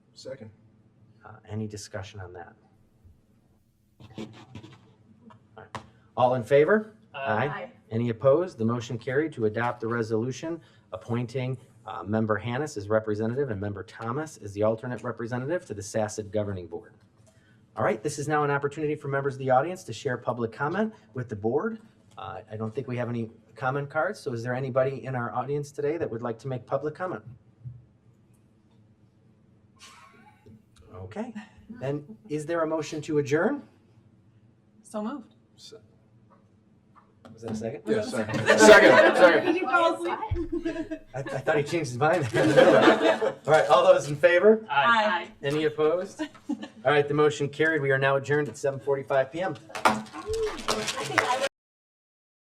Second. Uh, Any discussion on that? All in favor? Any opposed? The motion carried to adopt the resolution appointing uh, Member Hannis as representative and Member Thomas as the alternate representative to the SACID Governing Board. All right, this is now an opportunity for members of the audience to share public comment with the board. Uh, I don't think we have any comment cards, so is there anybody in our audience today that would like to make public comment? Okay, then is there a motion to adjourn? So moved. Se- Was that a second? Yeah, second. Second, second. Did you fall asleep? I, I thought he changed his mind. All right, all those in favor? Aye. Any opposed? All right, the motion carried. We are now adjourned at 7:45 PM.